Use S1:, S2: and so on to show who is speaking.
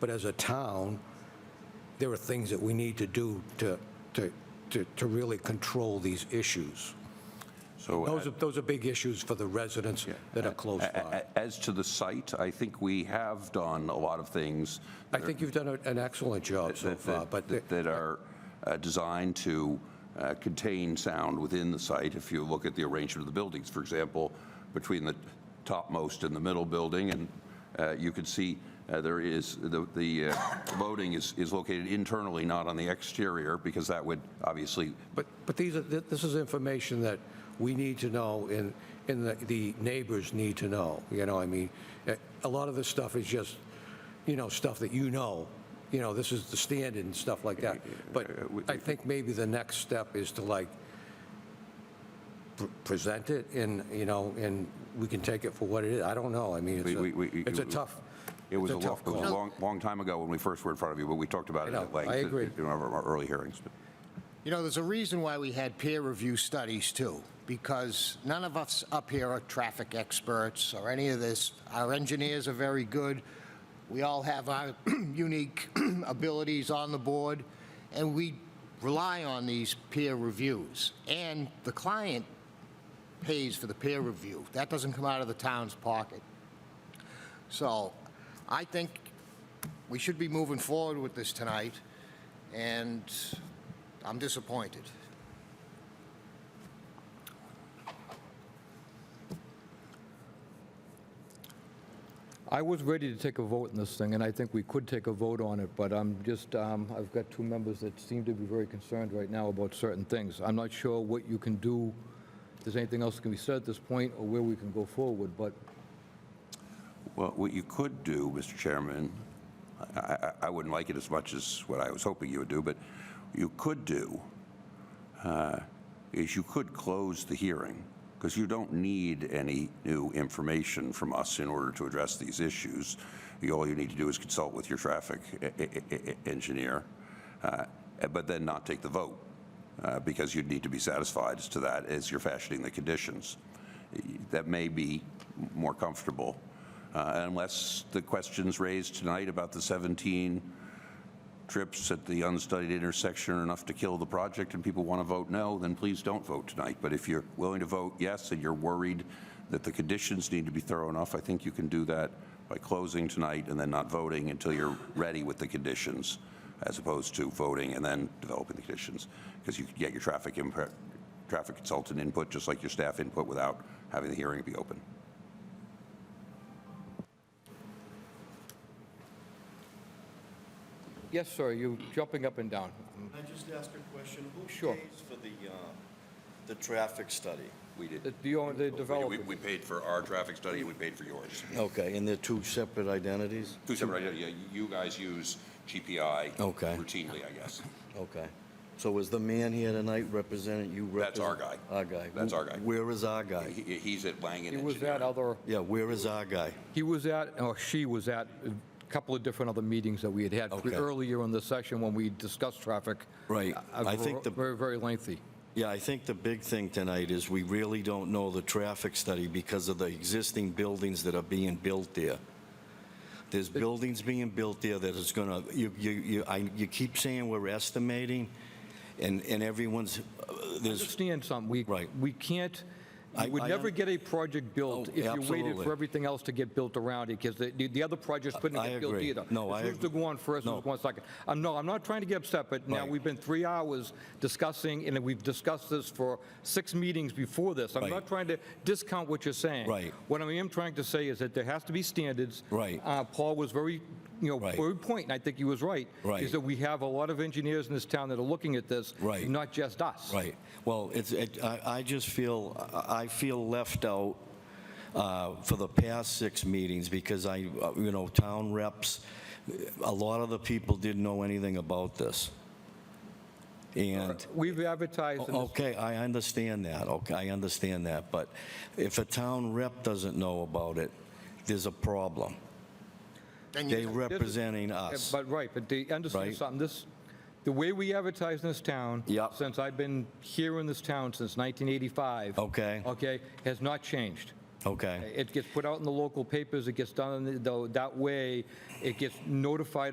S1: but as a town, there are things that we need to do to, to, to to really control these issues.
S2: So
S1: Those
S2: a-
S1: are, those are big issues for the residents that are close by.
S2: a- as to the site, I think we have done a lot of things
S1: I think you've done a- an excellent job so
S2: that-
S1: far,
S2: that
S1: but the-
S2: that- that are uh, designed to uh, contain sound within the site. If you look at the arrangement of the buildings, for example, between the topmost and the middle building, and uh, you can see uh, there is, the the uh, loading is is located internally, not on the exterior, because that would obviously,
S1: But, but these are, th- this is information that we need to know and, and the- the neighbors need to know, you know, I mean, eh, a lot of this stuff is just, you know, stuff that you know, you know, this is the standard and stuff like that. But I think maybe the next step is to like pr- present it and, you know, and we can take it for what it is. I don't know, I mean, it's
S2: We- we- we-
S1: a, it's a tough,
S2: it was a
S1: it's
S2: lo-
S1: tough
S2: it was a
S1: call.
S2: long, long time ago when we first were in front of you, but we talked about it
S1: I know.
S2: at length.
S1: I
S2: in-
S1: agree.
S2: In one of our early hearings.
S3: You know, there's a reason why we had peer review studies too, because none of us up here are traffic experts or any of this. Our engineers are very good. We all have our unique abilities on the board, and we rely on these peer reviews. And the client pays for the peer review. That doesn't come out of the town's pocket. So I think we should be moving forward with this tonight, and I'm disappointed.
S4: I was ready to take a vote on this thing, and I think we could take a vote on it, but I'm just, um, I've got two members that seem to be very concerned right now about certain things. I'm not sure what you can do, if there's anything else that can be said at this point, or where we can go forward, but
S2: Well, what you could do, Mr. Chairman, I- I, I wouldn't like it as much as what I was hoping you would do, but you could do uh, is you could close the hearing because you don't need any new information from us in order to address these issues. You- All you need to do is consult with your traffic e- e- e- e- engineer, uh, but then not take the vote uh, because you'd need to be satisfied as to that as you're fashioning the conditions. That may be more comfortable uh, unless the questions raised tonight about the 17 trips at the unstudied intersection are enough to kill the project and people want to vote no, then please don't vote tonight. But if you're willing to vote yes and you're worried that the conditions need to be thorough enough, I think you can do that by closing tonight and then not voting until you're ready with the conditions, as opposed to voting and then developing the conditions. Because you could get your traffic impre- traffic consultant input, just like your staff input, without having the hearing be open.
S4: yes, sir, you're jumping up and down.
S5: Can I just ask a question?
S4: Sure.
S5: Who pays for the, uh, the traffic study?
S2: We did.
S4: The- The owner- the
S2: We,
S4: developer,
S2: we paid for our traffic study and we paid for yours.
S5: Okay, and they're two separate identities?
S2: Two separate, yeah, you- you guys use GPI.
S5: Okay.
S2: Routinely, I guess.
S5: Okay. So is the man here tonight representing you?
S2: That's our
S5: represent-
S2: guy.
S5: Our guy.
S2: That's our guy.
S5: Where is our guy?
S2: He, he's at Langen
S4: he was
S2: Engineering.
S4: at other,
S5: Yeah, where is our guy?
S4: he was at, or she was at a couple of different other meetings that we had had
S5: Okay.
S4: earlier in the session when we discussed traffic.
S5: Right.
S4: Uh,
S5: I think the-
S4: Very, very lengthy.
S5: Yeah, I think the big thing tonight is we really don't know the traffic study because of the existing buildings that are being built there. There's buildings being built there that is gonna, you, you, you, I, you keep saying we're estimating, and, and everyone's, uh, there's,
S4: understand something. We,
S5: Right.
S4: we can't,
S5: I-
S4: you would
S5: I
S4: never
S5: un-
S4: get a project built
S5: Oh,
S4: if you waited
S5: absolutely.
S4: for everything else to get built around it, because the, the other projects couldn't
S5: I
S4: get built
S5: agree.
S4: either.
S5: No, I
S4: It's Who's to
S5: agree.
S4: go on first,
S5: No.
S4: who's going second? I'm, no, I'm not trying to get upset, but now
S5: Right.
S4: we've been three hours discussing, and we've discussed this for six meetings before this. I'm
S5: Right.
S4: not trying to discount what you're saying.
S5: Right.
S4: What I am trying to say is that there has to be standards.
S5: Right.
S4: Uh, Paul was very, you know,
S5: Right.
S4: very point, and I think he was right.
S5: Right.
S4: Is that we have a lot of engineers in this town that are looking at this.
S5: Right.
S4: Not just us.
S5: right, well, it's, it, I, I just feel, I I feel left out, uh, for the past six meetings because I, uh, you know, town reps, a lot of the people didn't know anything about this. And.
S4: We've advertised in this
S5: Oh, Okay, I understand that, okay, I understand that, but if a town rep doesn't know about it, there's a problem.
S3: Then
S5: They
S3: you,
S5: representing us.
S4: But, right, but they understand
S5: Right.
S4: something, this, the way we advertise in this town.
S5: Yep.
S4: Since I've been here in this town since 1985.
S5: Okay.
S4: Okay, has not changed.
S5: Okay.
S4: It gets put out in the local papers, it gets done in the- though, that way, it gets notified